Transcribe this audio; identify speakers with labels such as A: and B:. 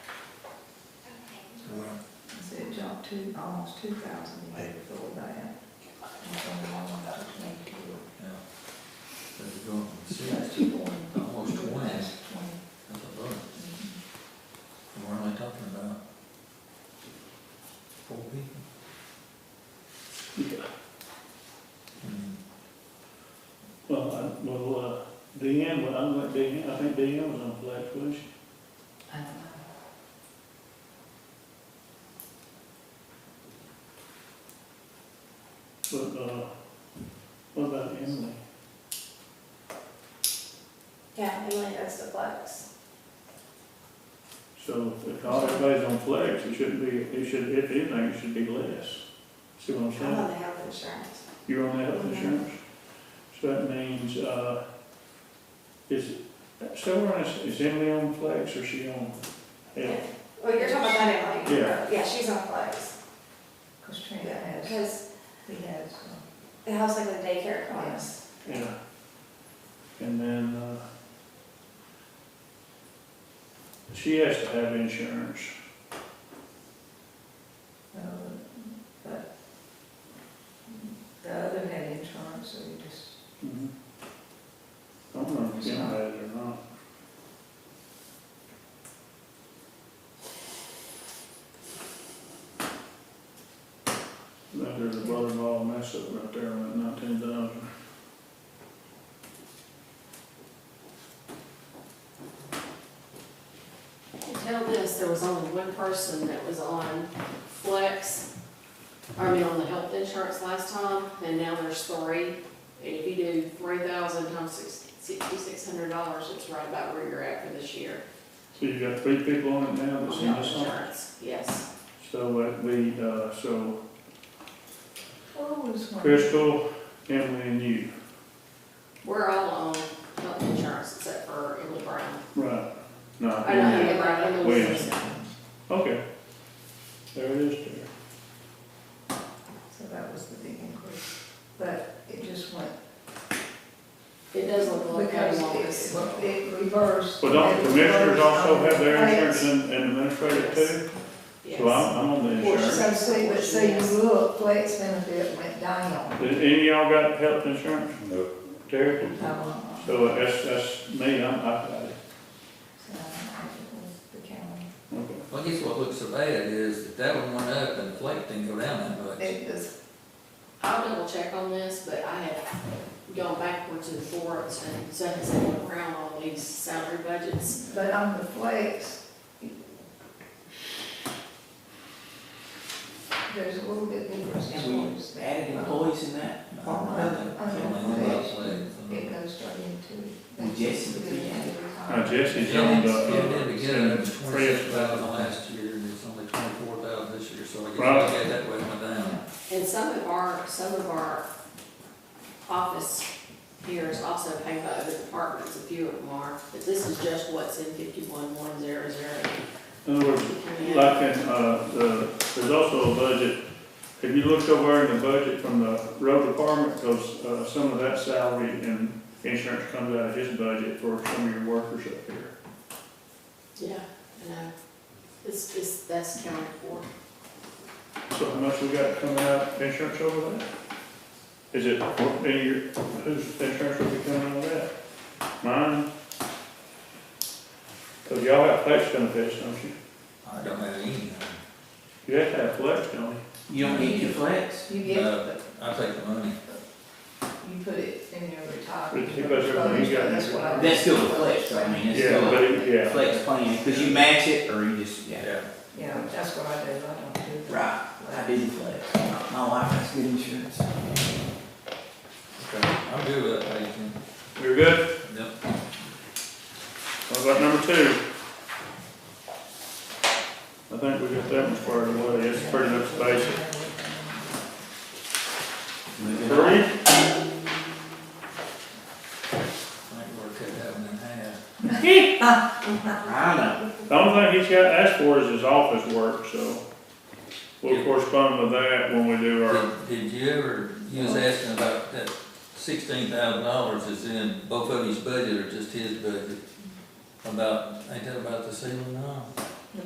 A: two, almost oh, two thousand a year for that. And it's only one of those next year.
B: Yeah. That's going from
A: So
B: six,
A: that's twenty.
B: almost twenty, that's
A: That's twenty.
B: a lot. And We're only talking about four people. Mm.
C: Well, I, well, uh, Deanne, well, I'm like Deanne, I think Deanne was on flex, wasn't she?
A: I don't know.
C: But, uh, what about Emily?
D: Yeah, Emily does the flex.
C: So if all everybody's on flex, it shouldn't be, it should, if anything, it should be less. See what I'm
D: I'm on
A: Uh-huh.
C: saying?
D: the health insurance.
C: You're on health
D: Mhm.
C: insurance. So that means, uh, is, so we're on- is Emily on flex or she on health?
D: Well, you're talking about Emily.
C: Yeah.
D: Yeah, she's on flex.
A: Cause Trent
D: Yeah,
A: has,
D: because
A: he has, uh,
D: the house like the daycare costs.
C: Yeah. And then, uh, she has to have insurance.
A: uh, but the other had insurance, so he just,
C: Mhm. I don't know if you know that or not. That there's a brother-in-law mess up right there on that nineteen thousand.
E: Until this, there was only one person that was on flex, I mean, on the health insurance last time, and now there's three. And if you do three thousand times sixty-six hundred dollars, it's right about where you're at for this year.
C: So you got three people on it now
E: On
C: that's in
E: health
C: this one?
E: insurance, yes.
C: So that'd be, uh, so
A: what oh, was one?
C: Crystal, Emily and you.
E: We're all on health insurance except for Emily Brown.
C: Right. No.
E: I don't think Emily Brown.
C: Williams. Okay. There it is there.
A: So that was the big increase, but it just went.
E: It does look like
A: Because
E: that on this.
A: it, it reversed.
C: But don't
A: it
C: the commissioners
A: reversed
C: also
A: on
C: have their
A: the
C: insurance and and administrative too? So
E: Yes.
C: I'm, I'm on the
A: flex.
C: insurance.
A: So see, but see, you look, flex benefit went down.
C: Did any of y'all got health insurance?
F: No.
C: Terry?
A: Um, so
C: So uh, that's, that's me, I'm, I, I,
A: I don't know if it was the county.
C: okay.
B: Well, I guess what looks so bad is that that one went up and the plate didn't go down that much.
A: It is,
E: I'll double check on this, but I have gone backwards and forwards and so has Emily Brown on these salary budgets.
A: but on the flex, there's a little bit difference.
G: And we added employees in that.
A: Uh-huh.
B: Something about plate,
A: It
B: something.
A: goes straight into.
G: And Jesse would be happy.
C: Now
G: Uh,
C: Jesse's
B: Yeah,
C: on
B: it
C: the,
B: did
C: uh,
B: begin at
C: it's
B: twenty-six thousand
C: Fred's.
B: last year and it's only twenty-four thousand this year, so I guess
C: Right.
B: I get that way it went down.
E: And some of our, some of our office here is also paid by other departments, a few of them are, but this is just what's in fifty-one one zero zero.
C: In other words, Like in, uh, the, there's also a budget, have you looked over in the budget from the road department? Because, uh, some of that salary and insurance comes out of his budget for some of your workers up here.
E: Yeah, I know. It's, it's, that's counted for.
C: So how much we got coming out of insurance over that? Is it, any, of your- whose insurance will be coming out of that? Mine? Because y'all have flex benefits, don't you?
B: I don't have any.
C: You have to have flex, don't you?
G: You don't need your flex.
A: You get,
B: Uh,
A: you
B: I take the money.
A: put it in your
C: But
A: retirement.
C: he goes over, he's got-
A: That's what I.
G: That's still a flex, I mean, it's still
C: But,
G: a
C: it- yeah.
G: flex plan, because you match it or you just, yeah.
A: Yeah, that's what I do, I don't do.
G: Right, I didn't flex. My wife has good insurance.
B: Okay, I'll do that, I can.
C: You're good?
B: Yep.
C: What about number two? I think we got that one squared away, it's pretty much basic.
G: Moving on.
C: Three,
B: I think we're cut that one in half.
G: I know.
C: the only thing he's got asked for is his office work, so we'll correspond with that when we do our,
B: Did, did you ever, you was asking about that sixteen thousand dollars is in both of his budget or just his budget? About, ain't that about the ceiling now?